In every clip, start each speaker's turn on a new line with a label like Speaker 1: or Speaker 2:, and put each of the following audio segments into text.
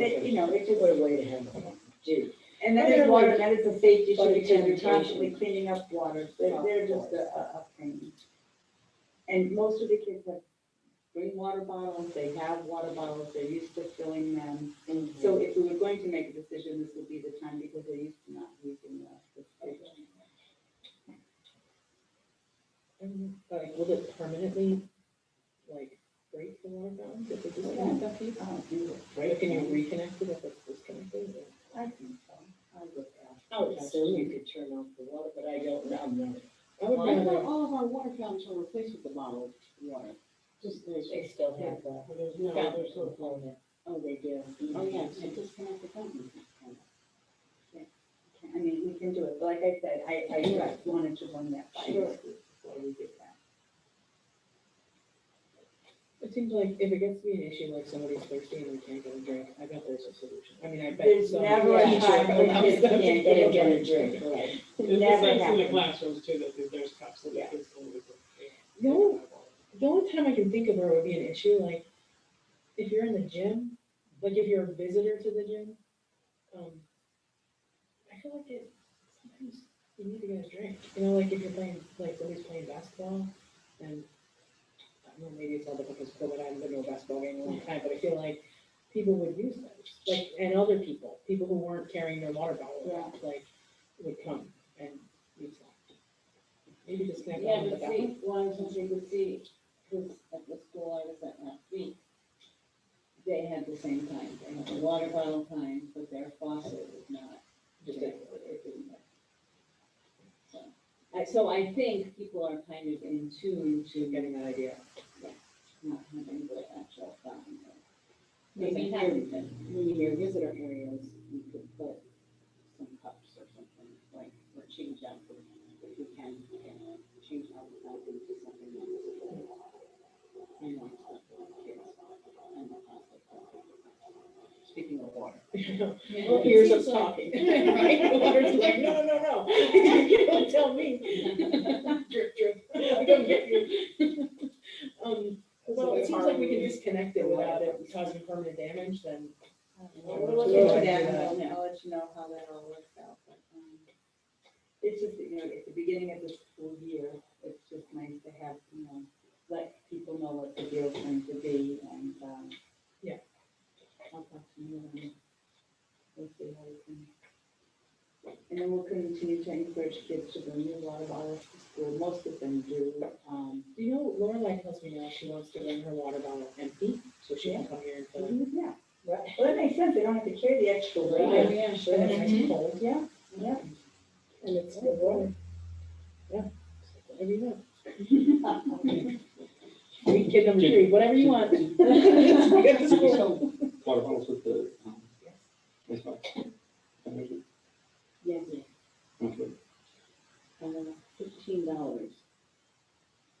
Speaker 1: it, you know, it's a good way to have it do.
Speaker 2: And that is water, that is a safety issue
Speaker 1: But
Speaker 2: because
Speaker 1: again, you're
Speaker 2: you're
Speaker 1: constantly
Speaker 2: constantly
Speaker 1: cleaning up water,
Speaker 2: They're,
Speaker 1: they're,
Speaker 2: they're just a, a, a pain. And most of the kids have bring water bottles, they have water bottles, they're used to filling them.
Speaker 1: So,
Speaker 2: So if we were going to make a decision, this would be the time because they're used to not using the. the station.
Speaker 3: And, Like, will it permanently, like, break the water fountain if they disconnect that piece?
Speaker 2: I don't do it.
Speaker 3: Or can you reconnect it if it's disconnected? or-
Speaker 2: I think so. I would ask.
Speaker 1: I would assume Oh, you could turn off the water, but I don't know, I'm not.
Speaker 3: I would
Speaker 2: Well, I
Speaker 3: find
Speaker 2: thought
Speaker 3: out,
Speaker 2: all of our water fountains are replaced with the bottled water.
Speaker 1: Just, they still have that.
Speaker 2: no,
Speaker 1: there's no Mm-hmm.
Speaker 2: Oh, they do. Oh, yeah, and disconnect the phone. Yeah, I mean, we can do it, but like I said, I, I just wanted to run that by you
Speaker 3: Sure.
Speaker 2: before we did that.
Speaker 3: it seems like if it gets to be an issue, like somebody's thirsty and they can't get a drink, I bet there's a solution. I mean, I bet
Speaker 2: There's
Speaker 3: some.
Speaker 2: never a
Speaker 3: teacher
Speaker 2: time when
Speaker 3: comes
Speaker 2: kids
Speaker 3: up
Speaker 2: can't
Speaker 3: with
Speaker 2: get a
Speaker 3: something.
Speaker 2: drink.
Speaker 1: drink, right?
Speaker 4: It's
Speaker 2: Never
Speaker 4: the same in
Speaker 2: happened.
Speaker 4: the classrooms too, that there- there's cups that the
Speaker 2: Yeah.
Speaker 4: kids can use.
Speaker 3: The only, the only time I can think of where it would be an issue, like, if you're in the gym, like if you're a visitor to the gym, um, I feel like it, sometimes you need to get a drink, you know, like if you're playing, like somebody's playing basketball, and I don't know, maybe it's all different because COVID, I haven't been to a basketball game in a long time, but I feel like people would use those, like, and other people, people who weren't carrying their water bottle, around, like, would come and use that. Maybe just connect
Speaker 5: Yeah,
Speaker 3: that with the
Speaker 5: but
Speaker 3: bathroom.
Speaker 5: see, one of the things you could see, because at the school I was at last week, they had the same time, they had the water bottle time, but their faucet was not.
Speaker 3: Just
Speaker 5: connected, it didn't work. So, I, so I think people are kind of in tune to
Speaker 3: getting that idea.
Speaker 5: not having the actual fountain. there. Maybe
Speaker 2: Maybe here,
Speaker 5: having them,
Speaker 2: maybe here visitor areas, we could put some cups or something, like, or change out, the- if we can, we can change out the fountain to something that's. You know, for kids and the plastic. Speaking of water.
Speaker 5: Yeah.
Speaker 3: Well, here's us talking. Right? Water's like, no, no, no, no. you don't tell me. Drip, drip, I don't get you. Um, well, it seems like we can disconnect it without it causing permanent damage, then.
Speaker 2: We'll look into that, and I'll, I'll let you know how that all works out, but, um, it's just, you know, at the beginning of the school year, it's just nice to have, you know, let people know what the deal's going to be, and, um,
Speaker 3: Yeah.
Speaker 2: I'll talk to you, and we'll see how we can. And then we'll continue to encourage kids to bring their water bottles to school, most of them do, um,
Speaker 3: Do you know, Lorelai tells me now she wants to bring her water bottle empty, so she can come here and fill it.
Speaker 2: yeah.
Speaker 1: Well, that makes sense, they don't have to carry the extra weight.
Speaker 3: Oh, yeah, sure, that's nice and cold.
Speaker 2: Yeah, yeah.
Speaker 3: And it's still warm. Yeah. Whatever you want. Sweet Kid number three, whatever you want. Get to school.
Speaker 6: So, Water bottles with the, um, ice box. Okay.
Speaker 2: Yes, uh, fifteen dollars.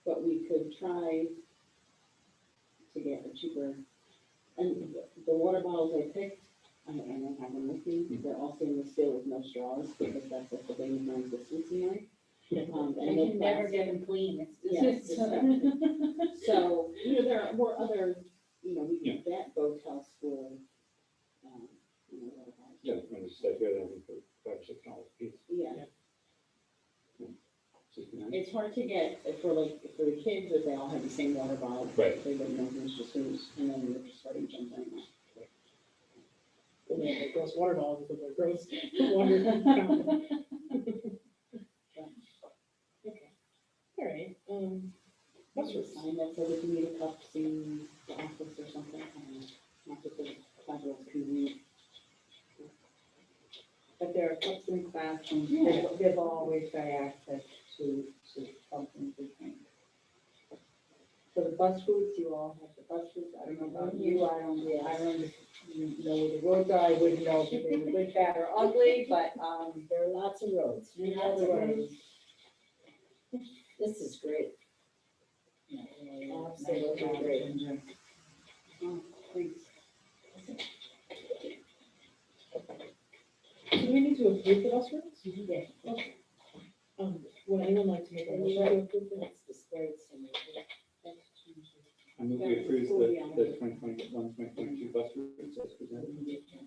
Speaker 2: But we could try to get a cheaper, and the water bottles I picked, I and I have them with me,
Speaker 6: Mm-hmm.
Speaker 2: they're all stainless steel with no straws, because that's what the baby brings this season, right? Um,
Speaker 5: I
Speaker 2: and no
Speaker 5: can never
Speaker 2: plastic.
Speaker 5: get them clean,
Speaker 2: Yeah,
Speaker 5: it's just.
Speaker 2: So, you know, there were other, you know, we
Speaker 6: Yeah.
Speaker 2: could vet Botel School, um, you know, water bottles.
Speaker 6: Yeah, I'm just like here, then for five, or six dollars a piece.
Speaker 2: Yeah,
Speaker 6: Sixty-nine.
Speaker 2: It's hard to get for like, for the kids, if they all have the same water bottle.
Speaker 6: Right.
Speaker 2: They don't know who's just who's, and then they're just starting jumping.
Speaker 3: And then the gross water bottles with the gross water fountain. Okay. All right, um, that's
Speaker 2: Just
Speaker 3: just,
Speaker 2: sign that says if you need a cup, see the office or something, and not that the federal can read.
Speaker 1: But there are cups in classrooms,
Speaker 2: Yeah.
Speaker 1: they've, they've always got access to, to something different. For the bus routes, you all have the bus routes, I don't know about you, I don't, yeah, I don't you know where the roads are, I wouldn't know if they were good, bad, or ugly, but, um, there are lots of roads.
Speaker 5: Yeah,
Speaker 1: Lots of
Speaker 5: that's
Speaker 1: roads.
Speaker 5: great. This is great.
Speaker 1: Absolutely great.
Speaker 2: Oh, thanks.
Speaker 3: do we need to approve the bus routes?
Speaker 2: Yeah.
Speaker 3: Um, would anyone like to make a motion to approve them?
Speaker 5: That's the spirit in me. That's-
Speaker 6: I'm I move we approve the, the twenty twenty-one, twenty twenty-two bus routes as presented.